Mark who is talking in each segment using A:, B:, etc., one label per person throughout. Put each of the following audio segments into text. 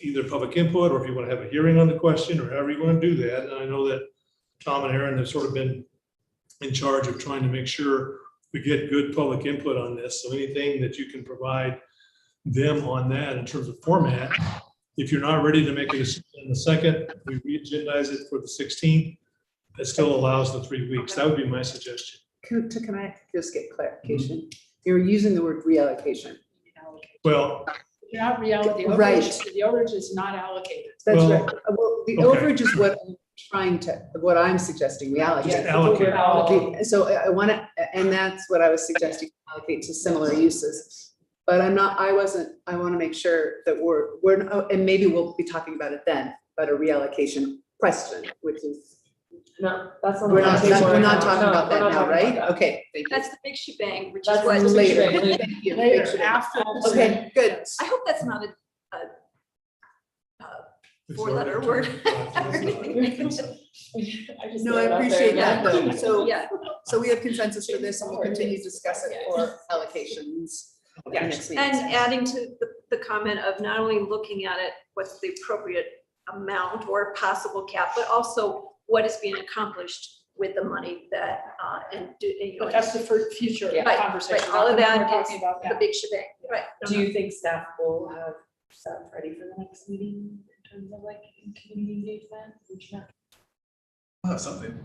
A: either public input, or if you want to have a hearing on the question, or however you want to do that. And I know that Tom and Aaron have sort of been in charge of trying to make sure we get good public input on this. So anything that you can provide them on that in terms of format. If you're not ready to make a decision in the second, we re-agendize it for the 16th. That still allows the three weeks. That would be my suggestion.
B: Can, to, can I just get clarification?
A: Mm-hmm.
B: You're using the word reallocation.
A: Well,
C: You're not reality, the
B: Right.
C: overage, the overage is not allocated.
B: That's
A: Well,
B: right. Uh, Well, the
A: okay.
B: overage is what I'm trying to, what I'm suggesting, we
A: Just
B: allocate.
A: allocate.
B: Allocate. So I, I want to, and that's what I was suggesting, allocate to similar uses. But I'm not, I wasn't, I want to make sure that we're, we're, oh, and maybe we'll be talking about it then, but a reallocation question, which is,
D: No, that's not.
B: we're not,
D: that's
B: we're not
D: right
B: talking
D: now. No,
B: about that
D: we're not
B: now,
D: talking
B: right?
D: about that.
B: Okay, thank you.
E: That's the big shebang, which is
D: That's
E: what.
D: the big
B: Later.
D: shebang.
B: Thank you.
C: Later, after. the-
B: Okay, good.
E: I hope that's not a,
A: it's
E: Four-letter
A: already
E: word.
A: turned out. It's not-
D: I just
B: No,
D: threw
B: I
D: it out there.
B: appreciate
E: that,
B: though. So-
E: yeah,
B: So we have consensus for this and we'll continue to discuss it for allocations.
D: Yeah.
B: next meeting.
E: and uh, adding to the, the comment of not only looking at it, what's the appropriate amount or possible cap, but also what is being accomplished with the money that, uh, and do, and, you know,
C: But that's the fir- future
D: Yeah.
E: Right,
C: conversation.
E: right, all of that
C: We're talking
E: is
C: about
E: the
C: that.
E: big shebang, right?
D: Do you think staff will have stuff ready for the next meeting in terms of like community engagement? reaching out?
F: I'll have something.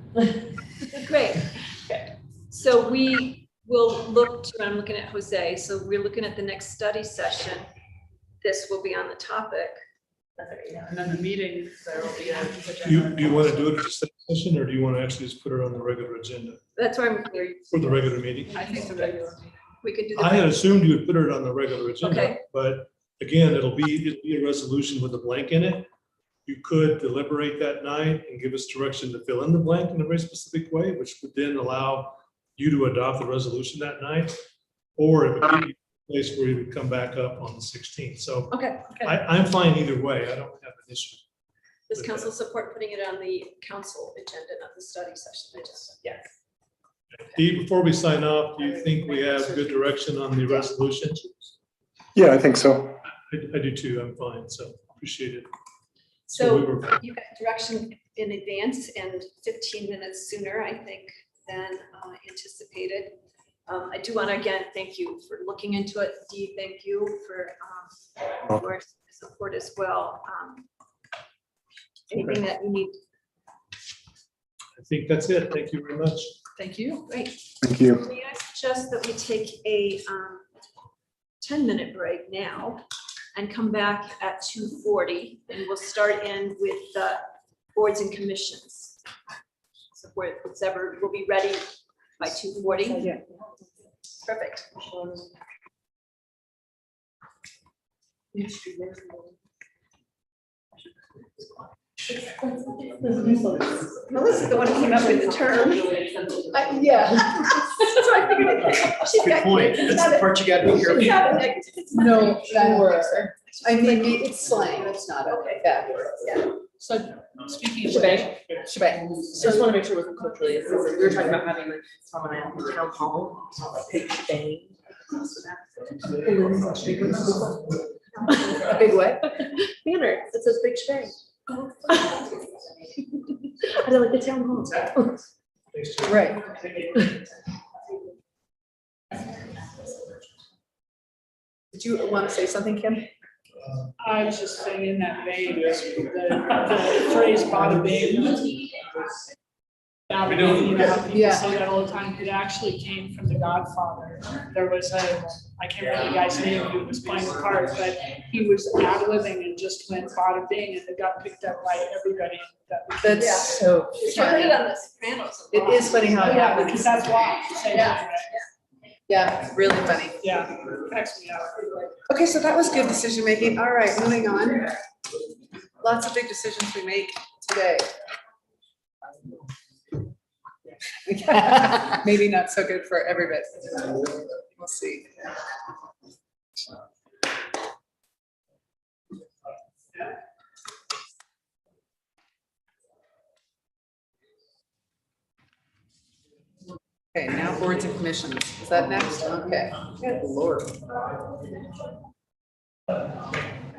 E: Great.
D: Okay.
E: So we will look to, I'm looking at Jose, so we're looking at the next study session. This will be on the topic.
D: That's right, yeah.
C: And then the meeting, there will be a.
A: Do you, do you want to do it at the study session, or do you want to actually just put it on the regular agenda
E: That's where I'm,
A: for the regular meeting?
C: I think the regular.
E: we could do
A: I had
E: that.
A: assumed you would put it on the regular agenda,
E: Okay.
A: but again, it'll be, it'll be a resolution with a blank in it. You could deliberate that night and give us direction to fill in the blank in a very specific way, which would then allow you to adopt the resolution that night. Or it would be a place where you would come back up on the sixteenth. So
E: Okay,
A: I, I'm fine either way. I don't have an issue.
E: does council support putting it on the council agenda, not the study session agenda?
D: Yes.
A: Dee, before we sign off, do you think we have good direction on the resolution?
G: Yeah, I think so.
A: I, I do too. I'm fine, so appreciate it. we
E: So
A: were-
E: you got direction in advance and fifteen minutes sooner, I think, than uh, anticipated. Um, I do want to again, thank you for looking into it. Dee, thank you for um, your support as well. Um, Anything that you need,
A: I think that's it. Thank you very much.
C: Thank you.
E: great.
G: Thank you.
E: May I suggest that we take a um, ten-minute break now and come back at two forty, and we'll start in with the boards and commissions. So where, it's ever, we'll be ready by two forty.
B: Yeah.
E: Perfect. Melissa's the one who came up with the term.
B: Uh, Yeah.
E: So I figured it- she's
F: Good
E: got-
F: point.
E: it's
F: That's
E: not
F: the
E: a-
F: part you gotta hear.
E: it's not a negative, it's not a
B: No,
E: negative.
B: sure. I mean, it's slang, it's not a
E: Okay.
B: bad
E: Yeah.
B: word.
D: So speaking of shebang,
B: shebang, Shebang.
D: so I just want to make sure we're culturally, we were talking about having like someone at the town hall, big shebang.
B: A big what?
D: Banner, it says big shebang. I don't like the town hall.
A: Thanks, Jim.
B: Right. Did you want to say something, Kim?
C: I was just saying in that vein, the the phrase bada bing. Bada
F: We don't-
C: bing, you know, how people
B: Yeah.
C: say that all the time, it actually came from The Godfather. There was a, I can't remember the guy's name, who was playing the part, but he was ad-libbing and just went bada bing, and it got picked up by everybody that.
B: That's so
E: I heard it
B: funny.
E: on The Sopranos.
B: It is funny how it
C: Yeah,
B: happens.
C: because that's why, same,
B: Yeah.
C: yeah,
B: Yeah, it's really funny.
C: yeah, cracks me up.
B: Okay, so that was good decision making. All right, moving on. Lots of big decisions we make today. Maybe not so good for everybody. We'll see. Okay, now boards and commissions. Is that next? Okay. Good lord.